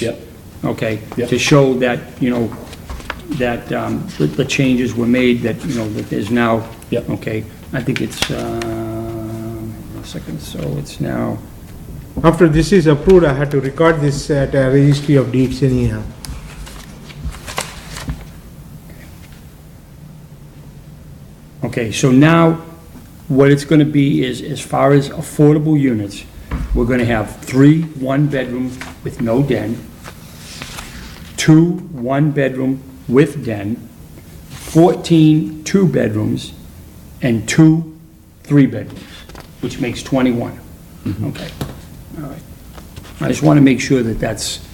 Yep. okay? Yep. To show that, you know, that um, the the changes were made, that, you know, that is now. Yep. Okay, I think it's, uh, a second, so it's now, After this is approved, I had to record this at a registry of deeds anyhow. okay, so now, what it's gonna be is, as far as affordable units, we're gonna have three one-bedroom with no den, two one-bedroom with den, 14 two-bedrooms, and two three-bedrooms, which makes 21. Okay, all right. I just want to make sure that that's,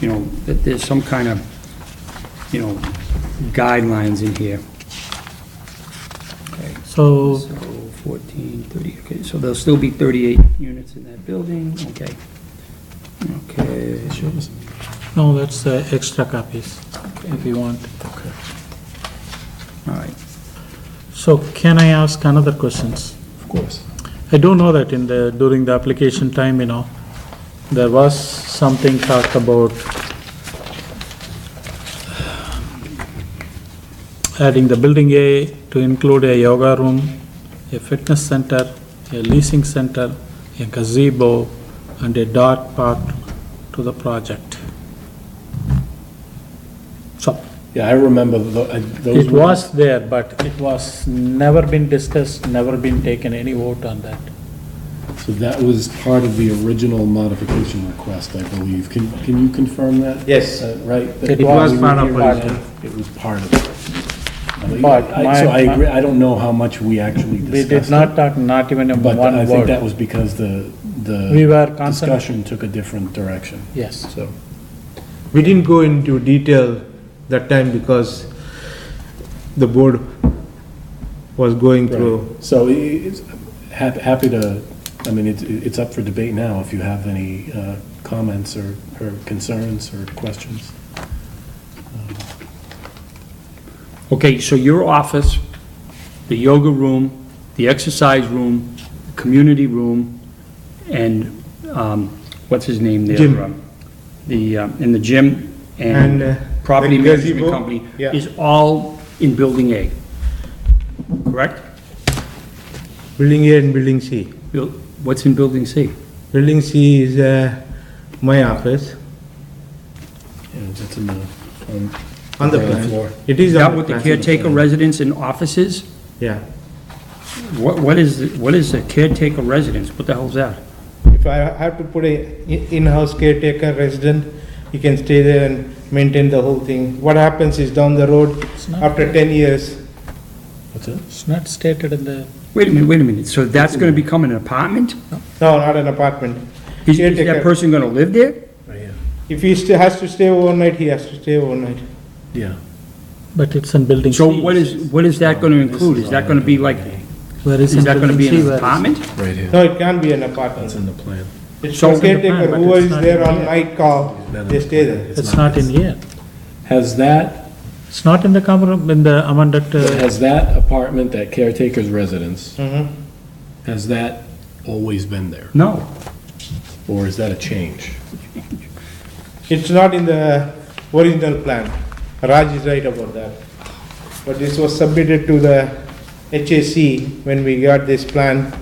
you know, that there's some kind of, you know, guidelines in here. Okay. So, So 14, 30, okay, so there'll still be 38 units in that building, okay. Okay, no, that's uh, extra copies, if you want. all right. So can I ask another questions? Of course. I don't know that in the, during the application time, you know, there was something talked about adding the building A to include a yoga room, a fitness center, a leasing center, a gazebo, and a dog park to the project. So, Yeah, I remember tho- I- those. it were- was there, but it was never been discussed, never been taken any vote on that. So that was part of the original modification request, I believe. Can, can you confirm that? Yes. Uh, Right? It was part of it. It was part of it. I mean, But I- my- So I my- agree, I don't know how much we actually discussed We did not talk, not even it, in But I one think that word. was because the, We the were concerned, discussion took a different direction, yes. so. We didn't go into detail that time because the board was going through. Right. So i- it's, hap- happy to, I mean, it's, it's up for debate now if you have any uh, comments or, or concerns or questions. Okay, so your office, the yoga room, the exercise room, the community room, and, um, what's his name there? Gym. Um, The, um, and the gym And, uh, and property the management gazebo, company yeah. is all in Building A, correct? Building A and Building C. Buil- What's in Building C? Building C is uh, my office Yeah, that's in the. on- on the ground plan. floor. It is Is on that the what the plan. caretaker residence and offices? Yeah. What, what is, what is a caretaker residence? What the hell's that? If I have to put a i- in-house caretaker resident, he can stay there and maintain the whole thing. What happens is down the road, It's not- after ten years, What's it? It's not stated in the, Wait a minute, wait a minute, so that's gonna become an apartment? no, not an apartment. Is is that Caretaker. person gonna live there? Right here. If he sta- has to stay overnight, he has to stay overnight. Yeah. but it's in building C. So what is, what is that gonna This include? Oh, Is that gonna be like, Where is is in that gonna building be C, an where is- apartment? Right here. No, it can't be an That's apartment. in the plan. It's So- for caretaker, But whoever it's is not there in on here. night call, they stay there. It's not in here. Has that, It's not in the common, in the amended, uh, has that apartment, that caretaker's residence, Mhm. has that always been there? No. Or is that a change? It's not in the original plan. Raj is right about that. But this was submitted to the HAC when we got this plan.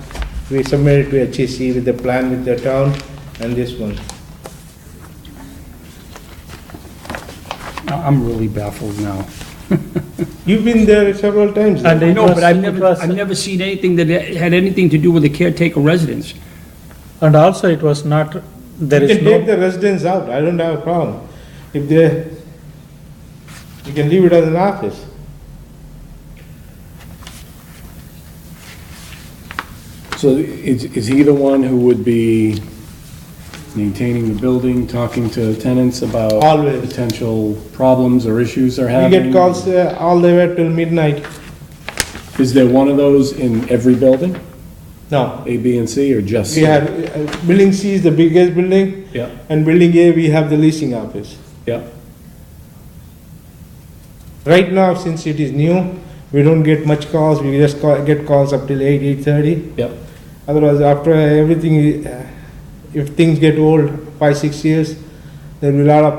We submitted to HAC with the plan with the town and this one. I- I'm really baffled now. You've been there several times. And I it know, was- but I've it never, was- I've never seen anything that had anything to do with a caretaker residence. and also it was not, there You is can take no, the residents out, I don't have a problem. If they, you can leave it as an office. So is, is he the one who would be maintaining the building, talking to tenants about? Always. Potential problems or issues they're We having? get calls uh, all the way till midnight. Is there one of those in every building, No, A, B, and C, or just? we have, uh, building C is the biggest building Yeah, and building A, we have the leasing office. yeah. Right now, since it is new, we don't get much calls, we just call, get calls up till eight, eight-thirty. Yep. Otherwise, after everything, uh, if things get old, five, six years, there'll be a lot of